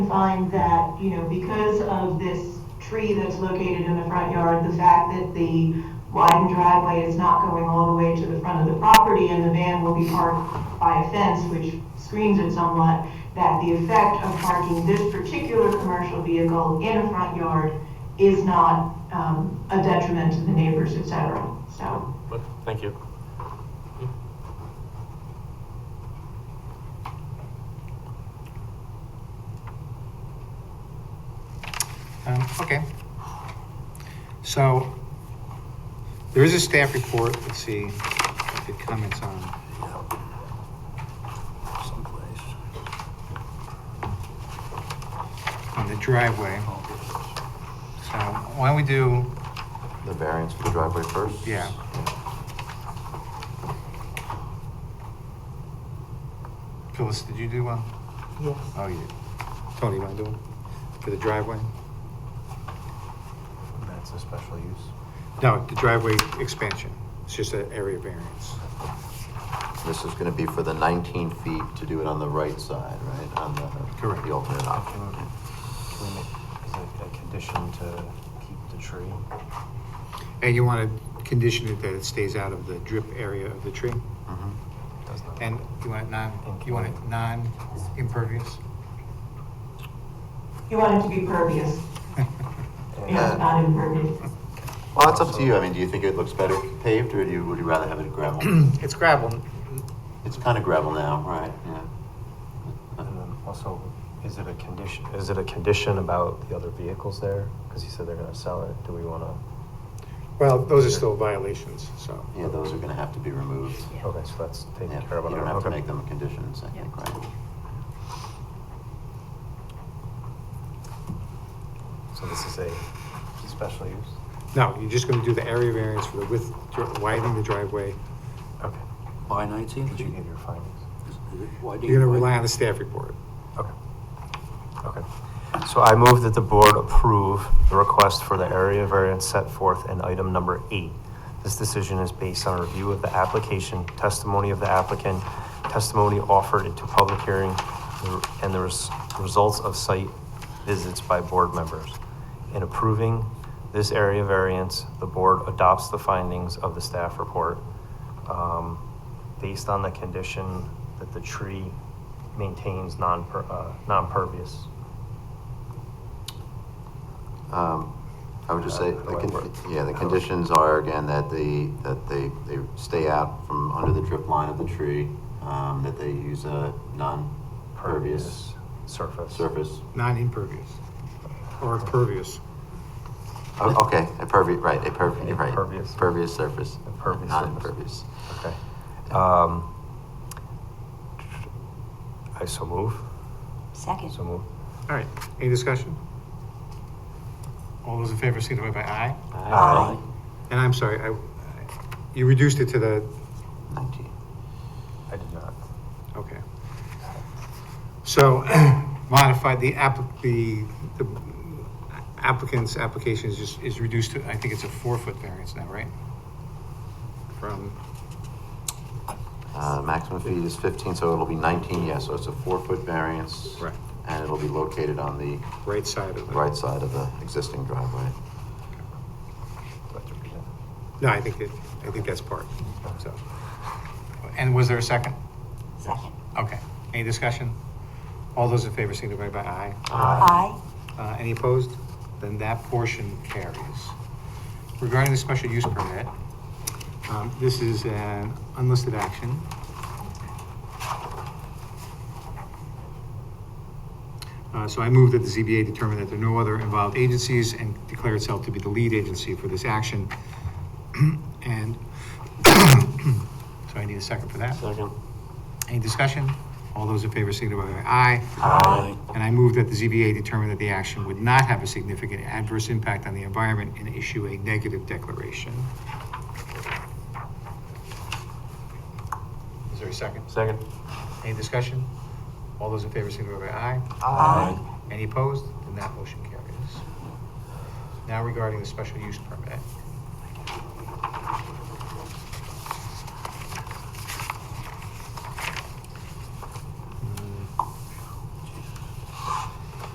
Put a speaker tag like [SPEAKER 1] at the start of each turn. [SPEAKER 1] find that, you know, because of this tree that's located in the front yard, the fact that the widened driveway is not going all the way to the front of the property and the van will be parked by a fence which screens it somewhat, that the effect of parking this particular commercial vehicle in a front yard is not, um, a detriment to the neighbors, et cetera, so.
[SPEAKER 2] Okay, Thank you.
[SPEAKER 3] Um, Okay. So, there is a staff report, let's see if it comments on.
[SPEAKER 4] someplace.
[SPEAKER 3] on the driveway. So why don't we do,
[SPEAKER 5] The variance for the driveway first?
[SPEAKER 3] Yeah. Phyllis, did you do one?
[SPEAKER 6] Yes.
[SPEAKER 3] Oh, you did. Tony, you want to do one for the driveway?
[SPEAKER 4] That's a special use.
[SPEAKER 3] No, the driveway expansion. It's just an area variance.
[SPEAKER 5] This is gonna be for the 19 feet to do it on the right side, right? On the,
[SPEAKER 3] Correct.
[SPEAKER 5] the alternate option.
[SPEAKER 4] Can we make, is it a condition to keep the tree?
[SPEAKER 3] And you want to condition it that it stays out of the drip area of the tree?
[SPEAKER 5] Mhm.
[SPEAKER 4] Does not.
[SPEAKER 3] And you want it non, you want it non-impervious?
[SPEAKER 1] You want it to be pervious, you know,
[SPEAKER 5] Yeah.
[SPEAKER 1] not impervious.
[SPEAKER 5] Well, that's up to you. I mean, do you think it looks better paved or do you, would you rather have it gravel?
[SPEAKER 3] It's gravel.
[SPEAKER 5] It's kind of gravel now, right? Yeah.
[SPEAKER 4] And then also, is it a condition, is it a condition about the other vehicles there? Because you said they're gonna sell it. Do we wanna?
[SPEAKER 3] Well, those are still violations, so.
[SPEAKER 5] Yeah, those are gonna have to be removed.
[SPEAKER 4] Okay, so that's taken
[SPEAKER 5] Yeah,
[SPEAKER 4] care of.
[SPEAKER 5] You don't have to
[SPEAKER 4] Okay.
[SPEAKER 5] make them conditions, I think, right?
[SPEAKER 4] So this is a special use?
[SPEAKER 3] No, you're just going to do the area variance for the width, widening the driveway.
[SPEAKER 4] Okay.
[SPEAKER 7] By 19th?
[SPEAKER 4] Did you give your findings?
[SPEAKER 3] You're going to rely on the staff report.
[SPEAKER 4] Okay. Okay. So I move that the board approve the request for the area variance set forth in item number eight. This decision is based on a review of the application, testimony of the applicant, testimony offered into public hearing, and the res- results of site visits by board members. In approving this area variance, the board adopts the findings of the staff report um, based on the condition that the tree maintains non-per, uh, non-pervious.
[SPEAKER 5] Um, I would just say,
[SPEAKER 4] Uh,
[SPEAKER 5] the
[SPEAKER 4] how it
[SPEAKER 5] con-
[SPEAKER 4] works.
[SPEAKER 5] yeah, the
[SPEAKER 4] How it-
[SPEAKER 5] conditions are, again, that they, that they, they stay out from under the drip line of the tree, um, that they use a non-pervious
[SPEAKER 4] Surface.
[SPEAKER 5] surface.
[SPEAKER 3] Non-impervious or pervious.
[SPEAKER 5] Oh, Okay, a pervi, right, a pervi, you're right.
[SPEAKER 4] Impervious.
[SPEAKER 5] Pervious surface.
[SPEAKER 4] Impervious
[SPEAKER 5] Not
[SPEAKER 4] surface.
[SPEAKER 5] impervious.
[SPEAKER 4] Okay. Um, I so move,
[SPEAKER 8] Second.
[SPEAKER 4] so move.
[SPEAKER 3] All right, any discussion? All those in favor signify by aye.
[SPEAKER 4] Aye.
[SPEAKER 3] And I'm sorry, I, you reduced it to the,
[SPEAKER 5] Nineteen.
[SPEAKER 4] I did not.
[SPEAKER 3] okay. So modified, the app, the the applicant's application is just, is reduced to, I think it's a four-foot variance now, right? From,
[SPEAKER 5] Uh, maximum feet is fifteen, so it'll be nineteen, yes, so it's a four-foot variance.
[SPEAKER 3] Right.
[SPEAKER 5] And it'll be located on the
[SPEAKER 3] right side of the.
[SPEAKER 5] right side of the existing driveway.
[SPEAKER 4] Do I have to read that?
[SPEAKER 3] No, I think that, I think that's part, so. And was there a second?
[SPEAKER 8] Second.
[SPEAKER 3] Okay, any discussion? All those in favor signify by aye.
[SPEAKER 8] Aye.
[SPEAKER 3] Uh, Any opposed? Then that portion carries. Regarding the special use permit, um, this is an unlisted action. Uh, So I move that the ZBA determine that there are no other involved agencies and declare itself to be the lead agency for this action. And, so I need a second for that.
[SPEAKER 2] Second.
[SPEAKER 3] Any discussion? All those in favor signify by aye.
[SPEAKER 7] Aye.
[SPEAKER 3] And I move that the ZBA determine that the action would not have a significant adverse impact on the environment and issue a negative declaration. Is there a second?
[SPEAKER 2] Second.
[SPEAKER 3] Any discussion? All those in favor signify by aye.
[SPEAKER 7] Aye.
[SPEAKER 3] Any opposed? Then that motion carries. Now regarding the special use permit.